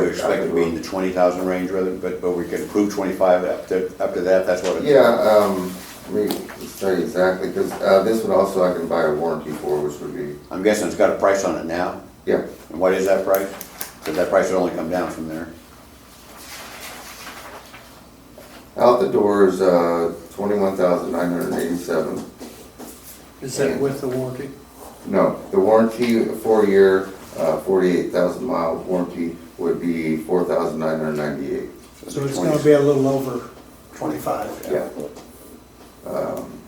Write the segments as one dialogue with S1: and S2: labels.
S1: would expect it to be in the twenty thousand range rather, but, but we can approve twenty-five up to, up to that, that's what it is.
S2: Yeah, um, let me tell you exactly, because, uh, this would also I can buy a warranty for, which would be,
S1: I'm guessing it's got a price on it now,
S2: yeah,
S1: and what is that price? Because that price would only come down from there.
S2: out the door is, uh, twenty-one thousand nine hundred eighty-seven.
S3: Is that with the warranty?
S2: No, the warranty, four-year, uh, forty-eight thousand mile warranty would be four thousand nine hundred ninety-eight.
S3: So it's gonna be a little over twenty-five.
S2: Yeah. Um,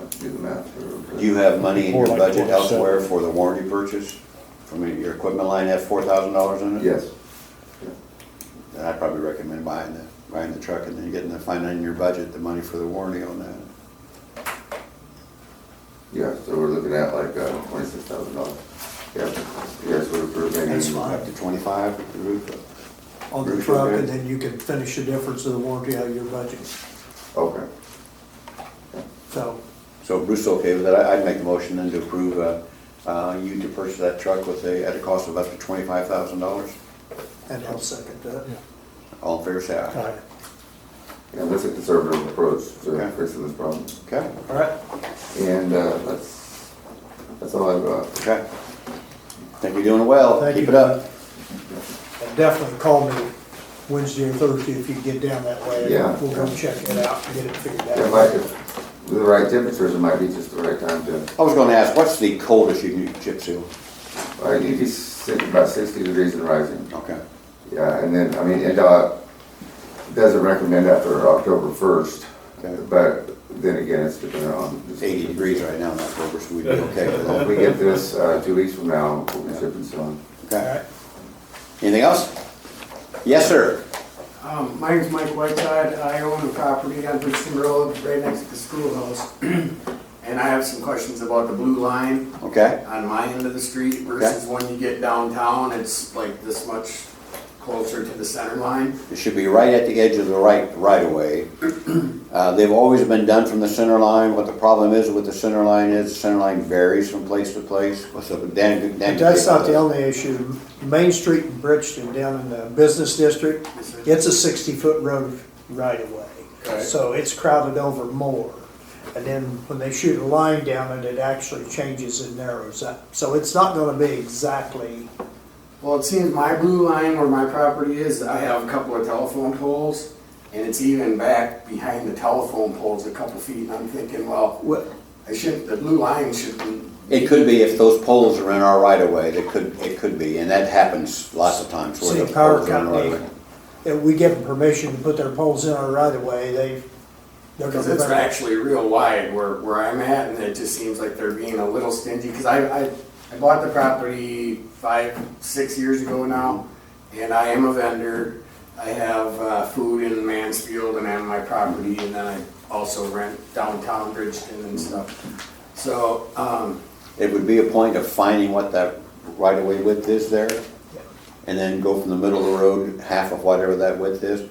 S2: I can do the math here. real quick.
S1: Do you have money in
S4: More
S1: your
S4: like
S1: budget
S4: 47.
S1: elsewhere for the warranty purchase? I mean, your equipment line has four thousand dollars in it?
S2: Yes,
S1: Then I'd probably recommend buying the, buying the truck and then getting the, finding in your budget the money for the warranty on that.
S2: yeah, so we're looking at like, uh, twenty-six thousand dollars. Yeah, yes, we're, we're making.
S3: That's fine.
S1: Up to twenty-five with the roof.
S3: On the truck, and then you can finish the difference of the warranty out of your budget.
S2: Okay,
S3: So,
S1: So Bruce is okay with that, I- I'd make the motion then to approve, uh, uh, you to purchase that truck with a, at a cost of up to twenty-five thousand dollars.
S3: and I'll second that.
S1: All in favor, say aye.
S2: and that's a conservative approach to
S1: Okay.
S2: fixing this problem.
S1: Okay,
S3: All right.
S2: And, uh, that's, that's all I've got.
S1: okay. Think you're doing well,
S3: Thank
S1: keep
S3: you.
S1: it up.
S3: And Definitely call me Wednesday or Thursday if you get down that way.
S2: Yeah.
S3: We'll go check it out, and get it figured
S2: Yeah, If I
S3: out.
S2: could, with the right temperatures, it might be just the right time to,
S1: I was gonna ask, what's the coldest you can chip seal?
S2: uh, you'd be sitting about sixty degrees and rising.
S1: Okay,
S2: Yeah, and then, I mean, NDOT doesn't recommend after October first,
S1: Okay.
S2: but then again, it's dependent on.
S1: it's eighty degrees right now in October, so we'd be okay with
S2: If
S1: that.
S2: we get this, uh, two weeks from now, we'll be shipping soon.
S3: All
S1: Okay,
S3: right.
S1: anything else? Yes, sir.
S5: Um, My name's Mike Whiteside. I own a property on Bridgeton Road, right next to the schoolhouse. And I have some questions about the blue line
S1: Okay,
S5: on my end of the street versus when you get downtown, it's like this much closer to the center line.
S1: it should be right at the edge of the right, right of way. Uh, they've always been done from the center line, what the problem is with the center line is, the center line varies from place to place. What's up with Dan- Dan-
S3: But that's not the only issue. Main Street in Bridgeton, down in the business district,
S5: Yes, sir.
S3: it's a sixty-foot road right away.
S5: Right.
S3: So it's crowded over more. And then when they shoot a line down it, it actually changes and narrows up. So it's not gonna be exactly,
S5: Well, it seems my blue line where my property is, I have a couple of telephone poles and it's even back behind the telephone poles a couple feet. And I'm thinking, well,
S3: well,
S5: I shouldn't, the blue line shouldn't
S1: It could be if those poles are in our right of way, that could, it could be, and that happens lots of times where
S3: See,
S1: the
S3: power
S1: poles are in our right of
S3: company-
S1: way.
S3: if we give them permission to put their poles in our right of way, they, they're
S5: Because
S3: gonna.
S5: it's
S3: run-
S5: actually real wide where, where I'm at, and it just seems like they're being a little stingy, because I, I, I bought the property five, six years ago now, and I am a vendor. I have, uh, food in Mansfield and I have my property, and then I also rent downtown Bridgeton and stuff. So, um,
S1: It would be a point of finding what that right of way width is there, and then go from the middle of the road, half of whatever that width is.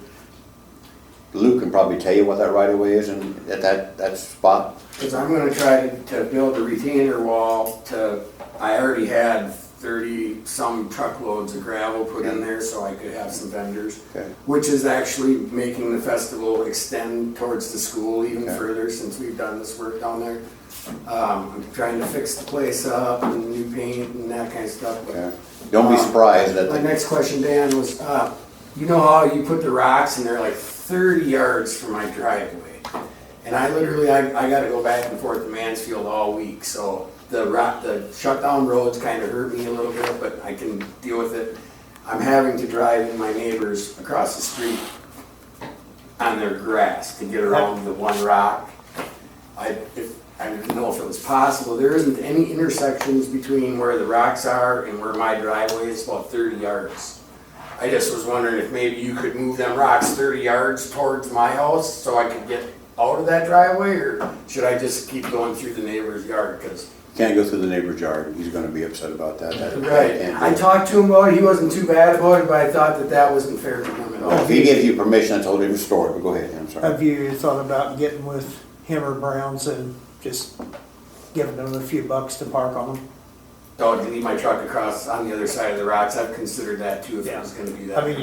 S1: Luke can probably tell you what that right of way is and at that, that spot.
S5: Because I'm gonna try to, to build a retainer wall to, I already had thirty-some truckloads of gravel put in there so I could have some vendors.
S1: Okay.
S5: Which is actually making the festival extend towards the school even
S1: Okay.
S5: further since we've done this work down there. Um, I'm trying to fix the place up and new paint and that kind of stuff, but
S1: Okay. Don't be surprised that,
S5: my
S1: the-
S5: next question, Dan, was, uh, you know how you put the rocks and they're like thirty yards from my driveway? And I literally, I, I gotta go back and forth to Mansfield all week, so the rock, the shutdown roads kinda hurt me a little bit, but I can deal with it. I'm having to drive in my neighbors across the street on their grass to get around the one rock. I, if, I didn't know if it was possible, there isn't any intersections between where the rocks are and where my driveway is, about thirty yards. I just was wondering if maybe you could move them rocks thirty yards towards my house so I could get out of that driveway, or should I just keep going through the neighbor's yard, cause?
S1: can't go through the neighbor's yard, he's gonna be upset about that. That- that can't be.
S5: I talked to him about it, he wasn't too bad about it, but I thought that that wasn't fair to him at all.
S1: If Oh, he gives you permission, that's a whole different story, but go ahead, I'm sorry.
S3: Have you thought about getting with him or Browns and just giving them a few bucks to park on them?
S5: Dog, leave my truck across on the other side of the rocks, I've considered that too, if it was gonna be that.
S3: I mean,